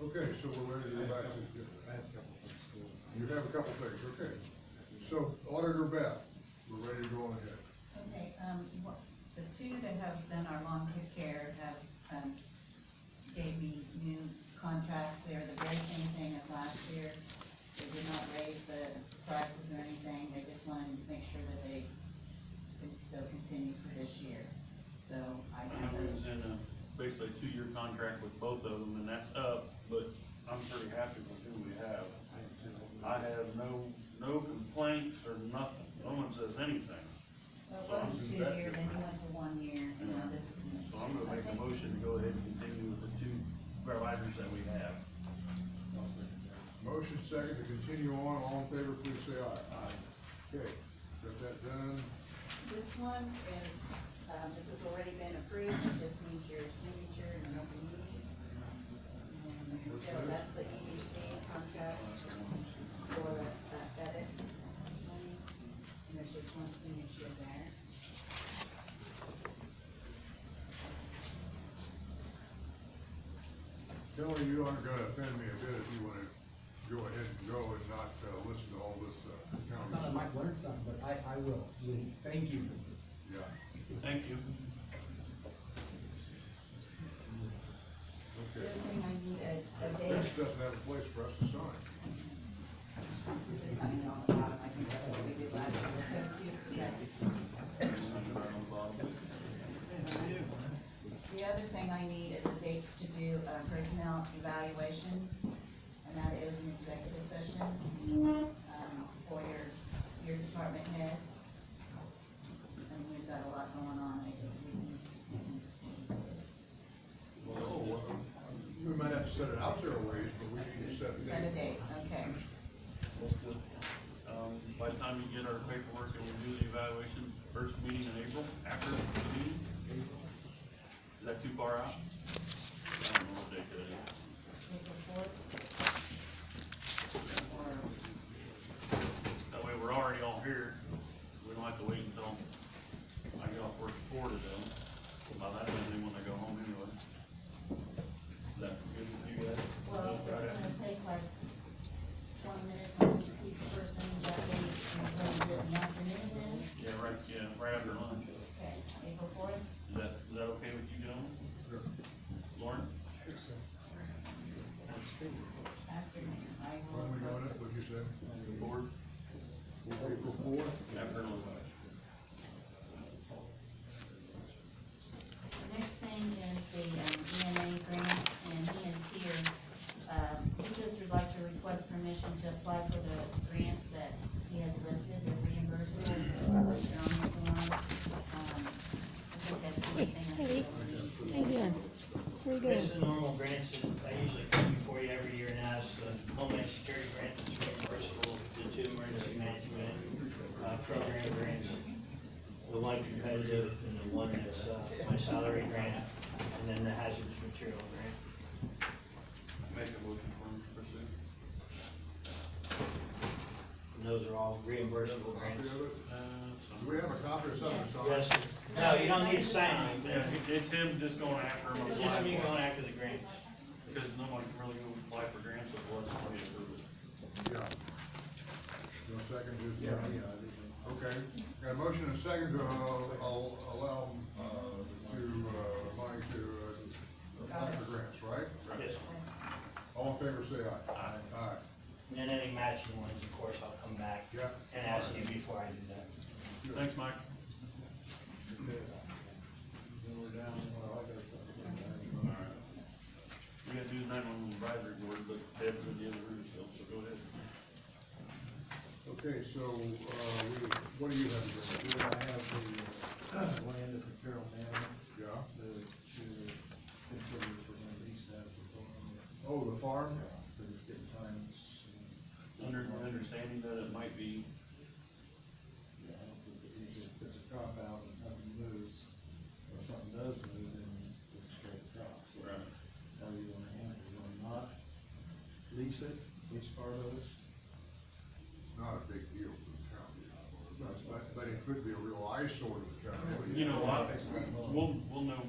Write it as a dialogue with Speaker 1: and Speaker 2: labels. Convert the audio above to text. Speaker 1: Okay, so we're ready to
Speaker 2: I
Speaker 1: go
Speaker 2: have
Speaker 1: back
Speaker 2: a couple-
Speaker 1: to,
Speaker 2: I have a couple from school.
Speaker 1: you have a couple things, okay. So Auditor Beth, we're ready to go on ahead.
Speaker 3: Okay, um, what, the two that have done our long-term care have, um, gave me new contracts, they're the very same thing as last year. They did not raise the prices or anything, they just wanted to make sure that they could still continue for this year. So I have
Speaker 4: I
Speaker 3: those,
Speaker 4: was in a, basically a two-year contract with both of them, and that's up, but I'm pretty happy with who we have.
Speaker 2: I have two of them.
Speaker 4: I have no, no complaints or nothing, no one says anything,
Speaker 3: well, it was a two-year, then you went to one year, and now this is. an-
Speaker 4: so I'm gonna make
Speaker 3: I
Speaker 4: a
Speaker 3: think-
Speaker 4: motion to go ahead and continue with the two providers that we have.
Speaker 2: I'll second that.
Speaker 1: Motion second to continue on, all in favor, please say aye. Okay, got that done,
Speaker 3: This one is, um, this has already been approved, it just needs your signature and an open meeting. And so That's the EDC contract for uh, edit. money. And there's just one signature there.
Speaker 1: Kelly, you aren't gonna offend me a bit if you wanna go ahead and go and not, uh, listen to all this, uh,
Speaker 5: Thought I
Speaker 1: accounting.
Speaker 5: might learn something, but I, I will. Thank you.
Speaker 1: Yeah,
Speaker 4: Thank you.
Speaker 3: The
Speaker 1: okay.
Speaker 3: other thing I need a, a
Speaker 1: This
Speaker 3: date
Speaker 1: doesn't have a place for us to sign.
Speaker 3: to sign it on the bottom, I think that's what we did last year. Let's see if it's that. The other thing I need is a date to do uh, personnel evaluations, and that is an executive session, um, for your, your department heads. And we've got a lot going on, I think we can.
Speaker 1: Well, we might have to set it out there a ways, but we need to set
Speaker 3: Set a
Speaker 1: it.
Speaker 3: date, okay.
Speaker 4: Um, by the time you get our paperwork and we do the evaluation, first meeting in April, after the meeting? Is that too far out? I don't know what day today is.
Speaker 3: April fourth? Or,
Speaker 4: That way we're already all here, we don't have to wait until I get off work at four to them. By that time, they wanna go home anyway. Is that good with you guys?
Speaker 3: well, it's
Speaker 4: Right after-
Speaker 3: gonna take like twenty minutes on each person, that day, and then do it in the afternoon then?
Speaker 4: Yeah, right, yeah, right after lunch.
Speaker 3: Okay, April fourth?
Speaker 4: Is that, is that okay with you gentlemen?
Speaker 1: Sure.
Speaker 4: Lauren?
Speaker 3: Afternoon, I will.
Speaker 1: When we doing it, what'd you say?
Speaker 4: Board?
Speaker 1: April fourth?
Speaker 4: After lunch.
Speaker 3: The next thing is the um, EMA grant, and he is here. Um, He just would like to request permission to apply for the grants that he has listed, the reimbursement. They're on the form. Um, I think that's the only thing. I feel we
Speaker 6: Hey,
Speaker 3: need.
Speaker 6: here. Where you going?
Speaker 7: This is normal grants that I usually come before you every year and ask, the Homeland Security grant that's reimbursable, the two emergency management, uh, program grants. The one competitive and the one that's, uh, my salary grant, and then the hazardous material grant.
Speaker 4: Make a motion for him to pursue.
Speaker 7: And those are all reimbursable
Speaker 1: Copy
Speaker 7: grants.
Speaker 1: of it?
Speaker 4: Uh,
Speaker 1: Do
Speaker 4: so-
Speaker 1: we have a copy or something,
Speaker 7: Yes,
Speaker 1: Sean?
Speaker 7: no, you don't need to sign anything,
Speaker 4: Yeah, it- it's him just going after him.
Speaker 7: It's just me going after the grants.
Speaker 4: Because no one can really go apply for grants if it wasn't fully approved.
Speaker 1: Yeah. No second, just.
Speaker 2: Yeah, yeah, I did.
Speaker 1: Okay, got a motion and a second to, uh, al- allow, uh, to, uh, Mike to, uh, apply for grants, right?
Speaker 7: Yes.
Speaker 1: All in favor, say aye.
Speaker 4: Aye.
Speaker 1: Aye,
Speaker 7: And then any matching ones, of course, I'll come back
Speaker 1: yeah.
Speaker 7: and ask you before I do that.
Speaker 4: Thanks, Mike.
Speaker 2: Then we're down, well, I gotta talk about that.
Speaker 4: All right. We gotta do the nine-one-one advisory board, but Deb's in the other room still, so go ahead.
Speaker 1: Okay, so, uh, we, what do you have to bring
Speaker 2: Here I have the uh, land of the Carroll Manor,
Speaker 1: Yeah,
Speaker 2: the, to continue for when lease that for farm.
Speaker 1: oh, the farm?
Speaker 2: But it's getting times.
Speaker 4: Under, understanding that it might be,
Speaker 2: Yeah, I don't think it is, if it's a cop out and nothing moves, or something does move, then it's straight drop. So
Speaker 4: Right.
Speaker 2: How do you wanna handle it, you wanna not lease it, lease part of it?
Speaker 1: Not a big deal for the county, but, but it could be a real eyesore to the county.
Speaker 4: you know, I, we'll, we'll know